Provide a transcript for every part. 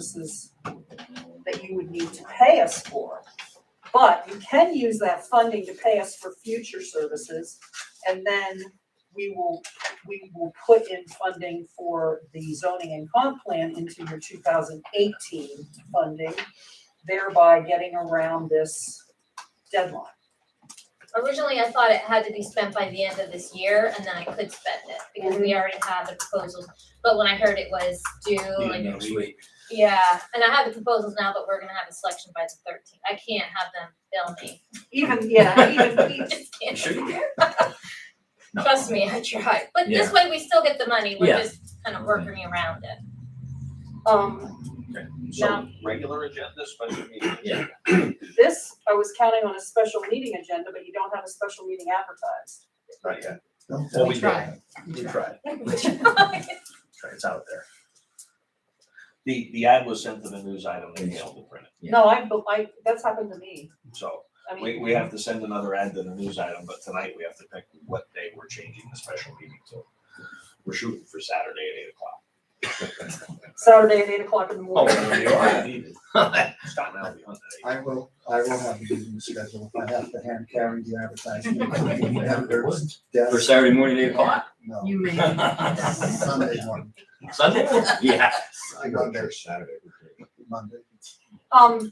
services that you would need to pay us for. But you can use that funding to pay us for future services, and then we will, we will put in funding for the zoning and comp plan into your two thousand eighteen funding, thereby getting around this deadline. Originally, I thought it had to be spent by the end of this year and then I could spend it because we already had the proposals. But when I heard it was due, like, next week. yeah, and I have the proposals now, but we're gonna have a selection by the thirteenth. I can't have them bill me. Even, yeah, even, I just can't. Sure you No. Trust me, I tried. But this way we still get the money. We're Yeah. just kind of working around it. um, So Now- regular agenda, special meeting. Yeah. This, I was counting on a special meeting agenda, but you don't have a special meeting advertised. Not yet. Well, we tried. did, we tried, Tried. it's out there. The, the ad was sent to the news item, they mailed the print, Yeah. No, I, bu- I, that's happened to me. so I we, mean, we have to send another ad to the news item, but tonight we have to pick what day we're changing the special meeting to. We're shooting for Saturday at eight o'clock. Saturday at eight o'clock in the morning. Oh, you are. Needed. Scott and I will be on that. I will, I will have a meeting schedule if I have to hand carry the advertisement. Editors, For desk, Saturday morning, eight o'clock? no, You may. Sunday morning, Sunday? Yeah. I go there Saturday, Monday, Um,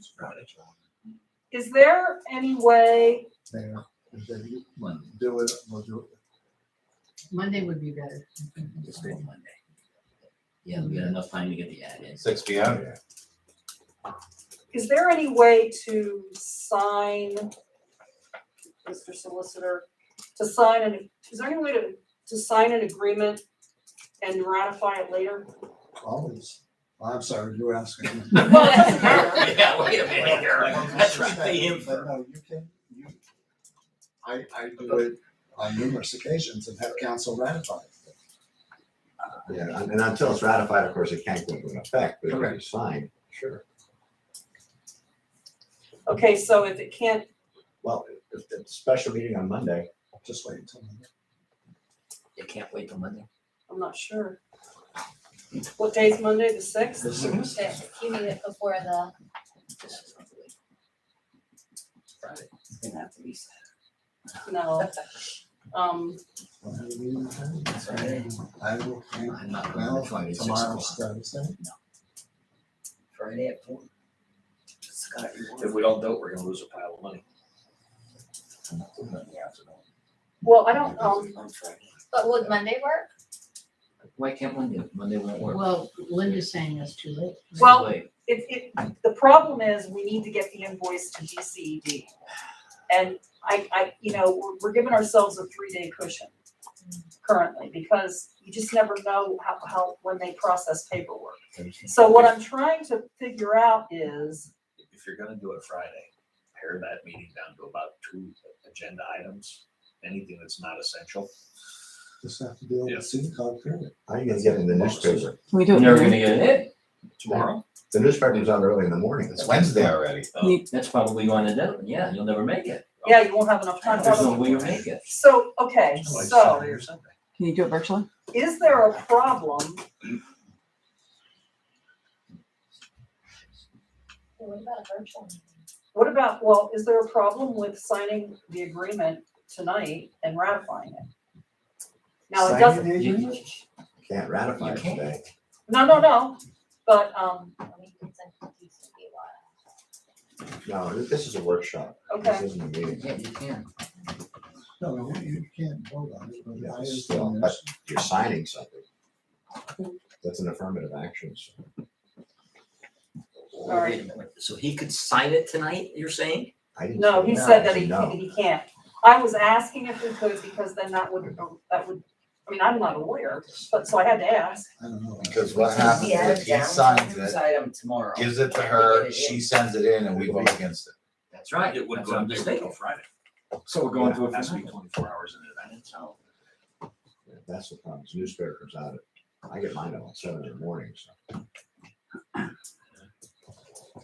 is there any way, there, if they Monday. do it, we'll do Monday would be better. It's been Monday. Yeah, we got enough time to get the ad in. Six P Oh, M. is there any way to sign, Mr. Solicitor, to sign an, is there any way to, to sign an agreement and ratify it later? it, always. I'm sorry, you were asking. Well, it doesn't matter. Yeah, wait a minute here. That's what they aim But for. no, you can, you, I, I do it on numerous occasions and have council ratify. it. Yeah, and and until it's ratified, of course, it can't go into effect, but if Correct. it's signed, sure. Okay, so if it can't, Well, if it's a special meeting on Monday, Just wait until Monday. They can't wait till Monday. I'm not sure. What day's Monday, the sixth? This is- If You need it before the, This is not the way. Friday. It's gonna have to be Saturday. No. Um, we'll have a meeting on Saturday. Friday. I will, I'm not going well, to Friday, six tomorrow's o'clock. Thursday. Friday at four. Scott, you want- If we don't do it, we're gonna lose a pile of money. I'm not doing that in the afternoon. well, I don't, um, On Friday. but would Monday work? Why can't Monday, Monday won't work? Well, Linda's saying that's too late. It's Well- late. it, it, the problem is, we need to get the invoice to DCED. And I, I, you know, we're, we're giving ourselves a three-day cushion currently, because you just never know how, how, when they process paperwork. So what I'm trying to figure out is, If you're gonna do it Friday, pare that meeting down to about two agenda items, anything that's not essential. Just have to deal Yeah. with student card period. I think it's getting the newspaper. Can we do You're it? never later? gonna get it. Tomorrow? The newspaper's on early in the morning. It's Wednesday already. Oh, That's probably going to deadline. Yeah, you'll never make it. yeah, you won't have enough time. There's no way you'll make it. So, okay, it's like so, Saturday or Sunday. Can you do it virtually? is there a problem What about a virtual meeting? What about, well, is there a problem with signing the agreement tonight and ratifying it? Now, it Signing doesn't, the You- agreement? Can't ratify You it can't. today. no, no, no, but, um, Let me consent to DCD law. No, this this is a workshop. This okay, isn't a meeting. Yeah, you can. No, no, you you can't vote on it. but Yeah, I it's understand still- there's- but You're signing something. That's an affirmative action. so- Wait a right. minute. So he could sign it tonight, you're saying? I didn't no, say he no, said I that he, no. he can't. I was asking if we could, because then that would, that would, I mean, I'm not a lawyer, but, so I had to ask. I don't know. Because what happens if he signs it, gives it to her, she sends it in and we vote against it. That's right. It would That's go, what I'm it would saying. go Friday. So we're going to It has to be twenty-four hours in advance. That's the problem. The Newspaper comes out at, I get mine out at seven in the morning, so.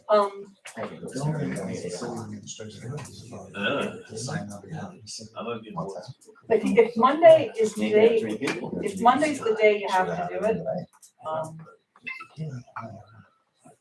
Um, The only thing is the city administration has to vote. Uh. To sign up, yeah, so I love you. what's that? but if Monday is the day, if Monday's the day you have to do it, um, I don't know.